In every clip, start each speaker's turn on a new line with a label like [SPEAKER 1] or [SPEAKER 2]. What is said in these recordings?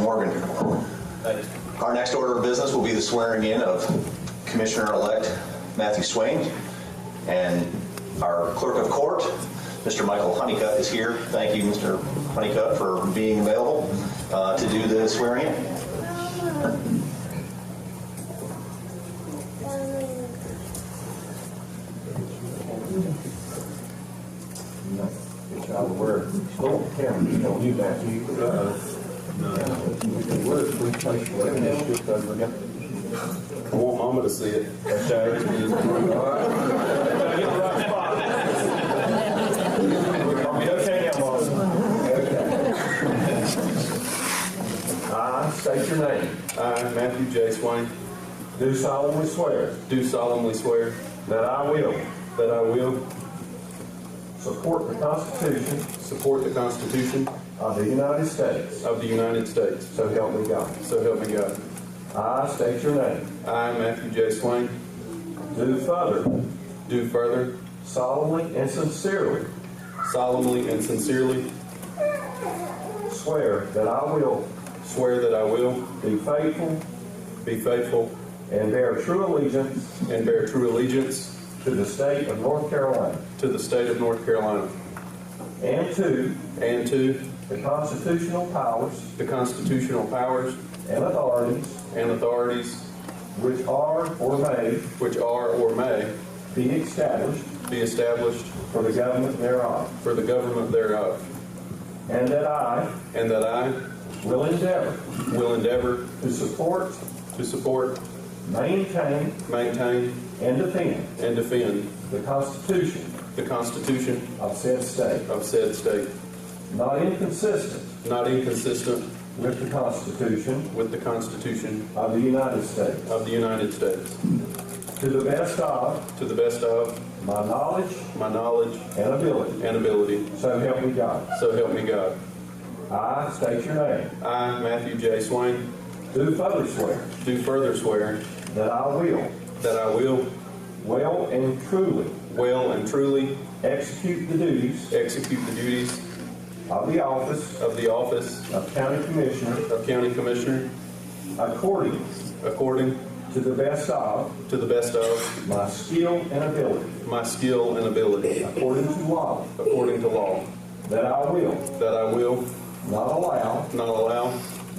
[SPEAKER 1] Morgan. Our next order of business will be the swearing in of Commissioner-elect Matthew Swain. And our clerk of court, Mr. Michael Honeycutt, is here. Thank you, Mr. Honeycutt, for being available uh, to do the swearing in.
[SPEAKER 2] Good job of work. Don't camera, don't do that. You, uh, the words we place for it, it's just over there.
[SPEAKER 3] I want mama to see it. Okay.
[SPEAKER 2] Okay, now, Bob. I state your name.
[SPEAKER 3] I, Matthew J. Swain,
[SPEAKER 2] Do solemnly swear
[SPEAKER 3] do solemnly swear
[SPEAKER 2] that I will
[SPEAKER 3] that I will
[SPEAKER 2] support the Constitution
[SPEAKER 3] support the Constitution
[SPEAKER 2] of the United States.
[SPEAKER 3] of the United States.
[SPEAKER 2] So help me God.
[SPEAKER 3] So help me God.
[SPEAKER 2] I state your name.
[SPEAKER 3] I, Matthew J. Swain,
[SPEAKER 2] Do further
[SPEAKER 3] do further
[SPEAKER 2] solemnly and sincerely
[SPEAKER 3] solemnly and sincerely
[SPEAKER 2] swear that I will
[SPEAKER 3] swear that I will
[SPEAKER 2] be faithful
[SPEAKER 3] be faithful
[SPEAKER 2] and bear true allegiance
[SPEAKER 3] and bear true allegiance
[SPEAKER 2] To the state of North Carolina.
[SPEAKER 3] to the state of North Carolina
[SPEAKER 2] And to
[SPEAKER 3] and to
[SPEAKER 2] the constitutional powers
[SPEAKER 3] the constitutional powers
[SPEAKER 2] and authorities
[SPEAKER 3] and authorities
[SPEAKER 2] which are or may
[SPEAKER 3] which are or may
[SPEAKER 2] be established
[SPEAKER 3] be established
[SPEAKER 2] for the government thereof.
[SPEAKER 3] for the government thereof,
[SPEAKER 2] And that I
[SPEAKER 3] and that I
[SPEAKER 2] will endeavor
[SPEAKER 3] will endeavor
[SPEAKER 2] to support,
[SPEAKER 3] to support,
[SPEAKER 2] maintain,
[SPEAKER 3] maintain,
[SPEAKER 2] and defend
[SPEAKER 3] and defend
[SPEAKER 2] the Constitution
[SPEAKER 3] the Constitution
[SPEAKER 2] of said state,
[SPEAKER 3] of said state,
[SPEAKER 2] not inconsistent
[SPEAKER 3] not inconsistent
[SPEAKER 2] with the Constitution
[SPEAKER 3] with the Constitution
[SPEAKER 2] of the United States,
[SPEAKER 3] of the United States,
[SPEAKER 2] to the best of
[SPEAKER 3] to the best of
[SPEAKER 2] my knowledge
[SPEAKER 3] my knowledge
[SPEAKER 2] and ability.
[SPEAKER 3] and ability.
[SPEAKER 2] So help me God.
[SPEAKER 3] So help me God.
[SPEAKER 2] I state your name.
[SPEAKER 3] I, Matthew J. Swain,
[SPEAKER 2] Do further swear
[SPEAKER 3] do further swear
[SPEAKER 2] that I will
[SPEAKER 3] that I will
[SPEAKER 2] Well and truly
[SPEAKER 3] well and truly
[SPEAKER 2] execute the duties
[SPEAKER 3] execute the duties
[SPEAKER 2] of the office
[SPEAKER 3] of the office
[SPEAKER 2] of county commissioner
[SPEAKER 3] of County Commissioner
[SPEAKER 2] according
[SPEAKER 3] according
[SPEAKER 2] to the best of
[SPEAKER 3] to the best of
[SPEAKER 2] my skill and ability,
[SPEAKER 3] my skill and ability,
[SPEAKER 2] according to law,
[SPEAKER 3] according to law,
[SPEAKER 2] that I will
[SPEAKER 3] that I will
[SPEAKER 2] not allow
[SPEAKER 3] not allow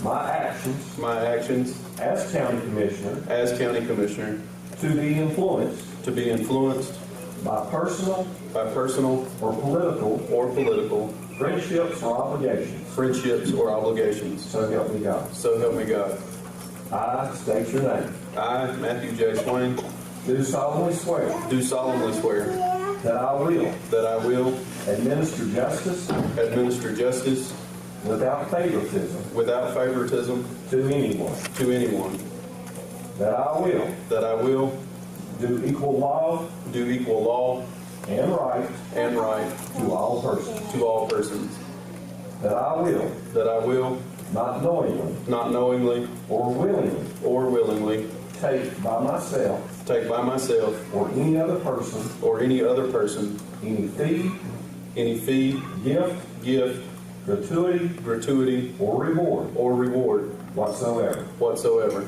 [SPEAKER 2] my actions
[SPEAKER 3] my actions
[SPEAKER 2] as county commissioner
[SPEAKER 3] as county commissioner
[SPEAKER 2] to be influenced
[SPEAKER 3] to be influenced
[SPEAKER 2] by personal
[SPEAKER 3] by personal
[SPEAKER 2] or political
[SPEAKER 3] or political
[SPEAKER 2] friendships or obligations.
[SPEAKER 3] friendships or obligations.
[SPEAKER 2] So help me God.
[SPEAKER 3] So help me God.
[SPEAKER 2] I state your name.
[SPEAKER 3] I, Matthew J. Swain,
[SPEAKER 2] Do solemnly swear
[SPEAKER 3] do solemnly swear
[SPEAKER 2] that I will
[SPEAKER 3] that I will
[SPEAKER 2] administer justice
[SPEAKER 3] administer justice
[SPEAKER 2] without favoritism
[SPEAKER 3] without favoritism
[SPEAKER 2] to anyone,
[SPEAKER 3] to anyone,
[SPEAKER 2] that I will
[SPEAKER 3] that I will
[SPEAKER 2] Do equal love
[SPEAKER 3] do equal law
[SPEAKER 2] and right
[SPEAKER 3] and right
[SPEAKER 2] to all persons.
[SPEAKER 3] to all persons,
[SPEAKER 2] That I will,
[SPEAKER 3] that I will
[SPEAKER 2] not knowingly
[SPEAKER 3] not knowingly
[SPEAKER 2] or willingly,
[SPEAKER 3] or willingly
[SPEAKER 2] take by myself
[SPEAKER 3] take by myself
[SPEAKER 2] or any other person
[SPEAKER 3] or any other person
[SPEAKER 2] any fee,
[SPEAKER 3] any fee,
[SPEAKER 2] gift,
[SPEAKER 3] gift,
[SPEAKER 2] gratuity,
[SPEAKER 3] gratuity,
[SPEAKER 2] or reward
[SPEAKER 3] or reward
[SPEAKER 2] whatsoever
[SPEAKER 3] whatsoever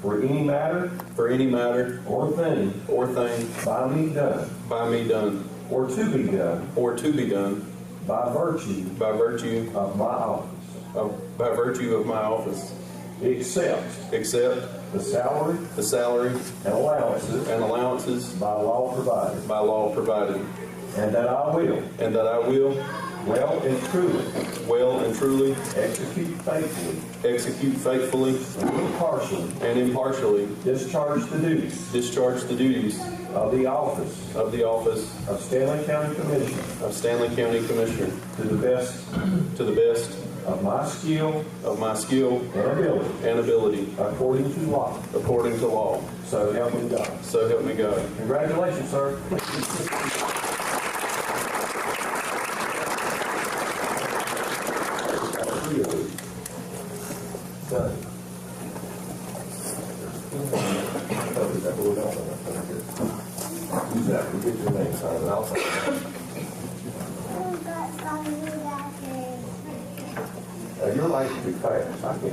[SPEAKER 2] for any matter
[SPEAKER 3] for any matter
[SPEAKER 2] or thing
[SPEAKER 3] or thing
[SPEAKER 2] by me done
[SPEAKER 3] by me done
[SPEAKER 2] or to be done
[SPEAKER 3] or to be done
[SPEAKER 2] by virtue
[SPEAKER 3] by virtue
[SPEAKER 2] of my office,
[SPEAKER 3] of, by virtue of my office,
[SPEAKER 2] except
[SPEAKER 3] except
[SPEAKER 2] the salary
[SPEAKER 3] the salary
[SPEAKER 2] and allowances
[SPEAKER 3] and allowances
[SPEAKER 2] by law provided,
[SPEAKER 3] by law provided,
[SPEAKER 2] and that I will
[SPEAKER 3] and that I will
[SPEAKER 2] well and truly
[SPEAKER 3] well and truly
[SPEAKER 2] execute faithfully
[SPEAKER 3] execute faithfully
[SPEAKER 2] and impartially
[SPEAKER 3] and impartially
[SPEAKER 2] discharge the duties
[SPEAKER 3] discharge the duties
[SPEAKER 2] of the office
[SPEAKER 3] of the office
[SPEAKER 2] of Stanley County Commissioner
[SPEAKER 3] of Stanley County Commissioner
[SPEAKER 2] to the best
[SPEAKER 3] to the best
[SPEAKER 2] of my skill
[SPEAKER 3] of my skill
[SPEAKER 2] and ability,
[SPEAKER 3] and ability
[SPEAKER 2] according to law.
[SPEAKER 3] according to law.
[SPEAKER 2] So help me God.
[SPEAKER 3] So help me God.
[SPEAKER 2] Congratulations, sir.
[SPEAKER 4] Who got some of that?
[SPEAKER 2] Your life will be fast. I can't